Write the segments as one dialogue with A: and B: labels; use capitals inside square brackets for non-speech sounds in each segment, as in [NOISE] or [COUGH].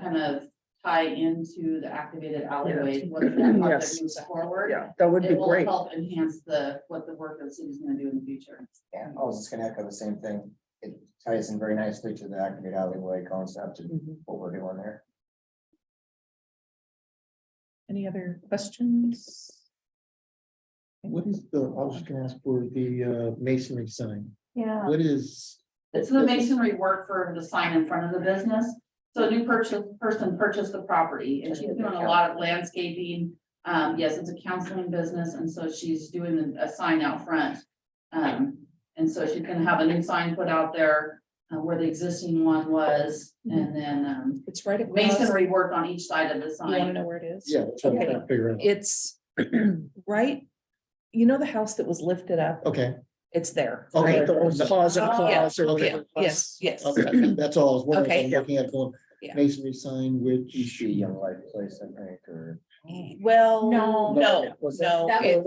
A: kind of tie into the activated alleyways,
B: [CLEARS THROAT]
A: what the
B: Yes.
A: project moves forward.
B: Yeah, that would be
A: It will
B: great.
A: help enhance the, what the work of the city's gonna do in the future.
C: Yeah, I was just gonna echo the same thing. It ties in very nicely to the activate alleyway concept and
D: Mm-hmm.
B: Mhm.
C: what we're doing there.
D: Any other questions?
E: What is the, I was gonna ask for the uh, masonry sign.
A: Yeah.
E: What is,
A: It's the masonry work for the sign in front of the business. So a new purchase, person purchased the property and she's doing a lot of landscaping. Um, yes, it's a counseling business and so she's doing a sign out front. Um, and so she's gonna have a new sign put out there uh, where the existing one was
B: Mm-hmm.
A: and then, um,
D: It's right across.
A: masonry work on each side of the
D: You wanna
A: sign.
D: know where it is?
E: yeah, that's what I'm trying to figure out.
D: It's [CLEARS THROAT] right, you know the house that was lifted up?
E: Okay.
D: It's there.
E: Okay.
D: Right.
E: Oh, the old
B: Closet
A: Oh,
B: clause or
E: Okay.
B: whatever.
D: Yes, yes.
E: Okay, [LAUGHS] That's all I was wondering, I
D: Okay.
E: was looking at going
D: Yeah.
E: masonry sign, which.
C: Each young life place, I think, or.
D: Well,
A: No.
D: no, Oh, no, it-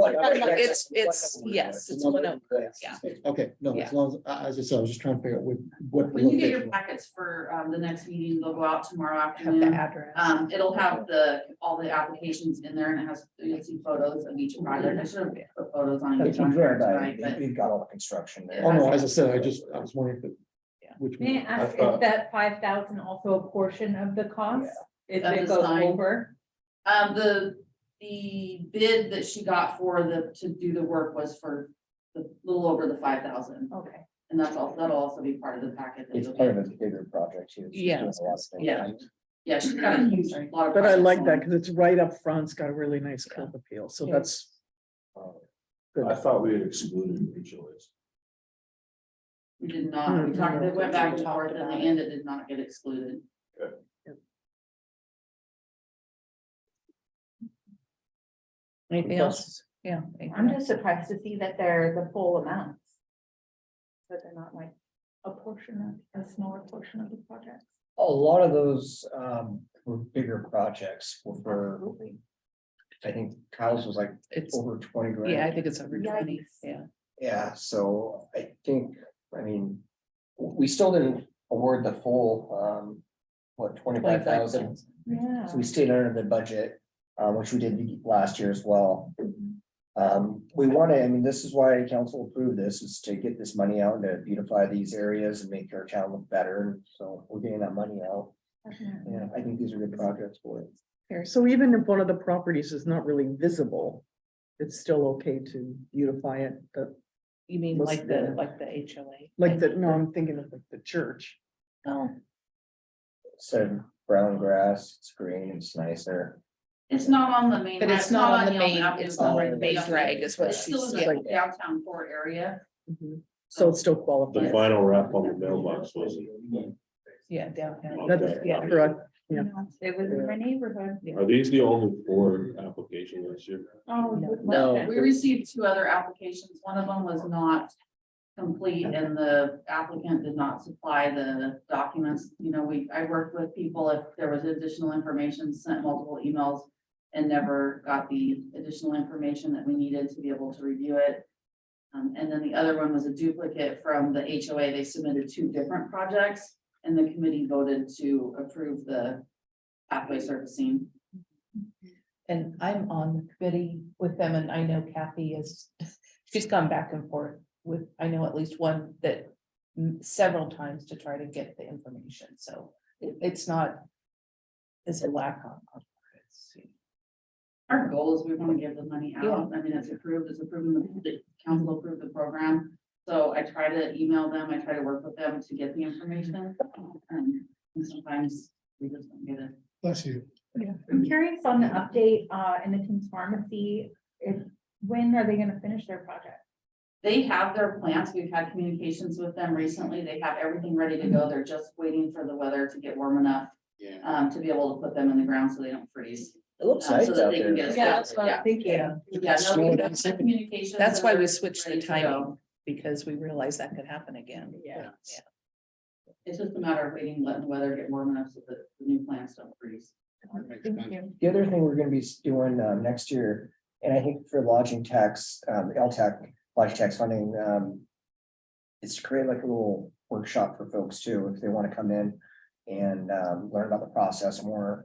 D: it's, it's, yes, it's one of, yeah.
E: Okay, no,
D: Yeah.
E: as long as, I- as I said, I was just trying to figure out what, what. the
A: When you get your
E: location was.
A: packets for, um, the next meeting, they'll go out tomorrow
D: have the
A: afternoon.
D: address.
A: Um, it'll have the, all the applications in there and it has, you'll see photos of each project. I should have put photos on each one here tonight, but
C: We've got all the construction there.
E: Oh, no, as I said, I just, I was wondering if it.
D: Yeah.
E: Which.
F: May I
E: one.
F: ask, is that five thousand also a portion of the cost? If
A: Of the
F: it goes
A: sign.
F: over?
A: Um, the, the bid that she got for the, to do the work was for the little over the five thousand.
F: Okay.
A: And that's all, that'll also be part of the packet. that
C: It's
A: you'll
C: part of
A: get.
C: a bigger project too.
D: Yeah.
A: Yeah. Yeah, she's got a huge, lot of.
B: But I
A: projects
B: like
A: going.
B: that because it's right up front. It's got a really nice curb appeal. So
D: Yeah.
B: that's,
G: I thought we had excluded HOAs.
A: We did not, we talked, they went back and forth and in the end it did not get excluded.
D: Anything else? Yeah. anything
F: I'm
D: else?
F: just surprised to see that they're the full amounts. But they're not like a portion of, a smaller portion of the project.
C: A lot of those um were bigger projects were for,
F: Absolutely.
C: I think Kyle's was like
D: It's,
C: over twenty grand.
D: yeah, I think it's over twenty,
F: Yikes.
D: yeah.
C: Yeah, so I think, I mean, w- we still didn't award the full, um, what, twenty-five thousand?
F: Yeah.
C: So we stayed under the budget, uh, which we did last year as well.
D: Mm-hmm.
C: Um, we want to, I mean, this is why council approved this, is to get this money out and to beautify these areas and make our town look better, and so we're getting that money out.
F: Definitely.
C: Yeah, I think these are good projects for it.
B: so even if one of the properties is not really visible, it's still okay to beautify it, but
D: You mean
B: Was
D: like the,
B: there-
D: like the HOA?
B: like the, no, I'm thinking of like the church.
D: Oh,
C: So brown grass, it's green, it's nicer.
A: It's not on the main.
D: But it's not on the main,
A: Yonge
D: it's
A: Avenue.
D: not on the main
A: Yeah.
D: drag is what
A: It's still
D: she's,
A: in
D: yeah.
A: the downtown core area.
B: Mhm. So it's still
G: The
B: qualified.
G: final wrap on the mailbox wasn't.
D: yeah, downtown.
B: That's, yeah, correct. Yeah.
F: It was in my neighborhood.
G: Are these the only four applications this year?
F: Oh.
D: No.
A: No, we received two other applications. One of them was not complete and the applicant did not supply the documents. You know, we, I worked with people if there was additional information, sent multiple emails and never got the additional information that we needed to be able to review it. Um, and then the other one was a duplicate from the HOA. They submitted two different projects and the committee voted to approve the pathway surfacing.
D: And I'm on the committee with them and I know Kathy is, [LAUGHS] she's gone back and forth with, I know at least one that mm, several times to try to get the information, so it- it's not it's a lack on. on it's, you know.
A: Our goal is we want to give the money out. I mean, it's approved, it's approved, the council approved the program. So I try to email them, I try to work with them to get the information. um, And sometimes we just don't get it.
E: Bless you.
F: I'm curious on the update, uh, in the King's Pharmacy, if, when are they gonna finish their project?
A: They have their plans. We've had communications with them recently. They have everything ready to go. They're just waiting for the weather to get warm enough
C: Yeah.
A: um, to be able to put them in the ground so they don't freeze.
C: It looks
A: Uh,
C: nice
A: so
C: out
A: that they can
C: there.
A: get us
D: Yeah,
A: out.
D: that's what I'm thinking.
A: Yeah, no,
E: Snow
A: we've
E: and
A: done
E: ice.
A: some communications
D: That's
A: and
D: why
A: they're
D: we switched the
A: ready to go.
D: timing, because we realized that could happen again.
B: Yeah.
D: Yeah.
A: It's just a matter of waiting, letting the weather get warm enough so that the new plants don't freeze.
F: Thank you.
C: The other thing we're gonna be s- doing um next year, and I think for lodging tax, um LTAC, lodging tax funding, um. Is to create like a little workshop for folks too, if they wanna come in and um, learn about the process more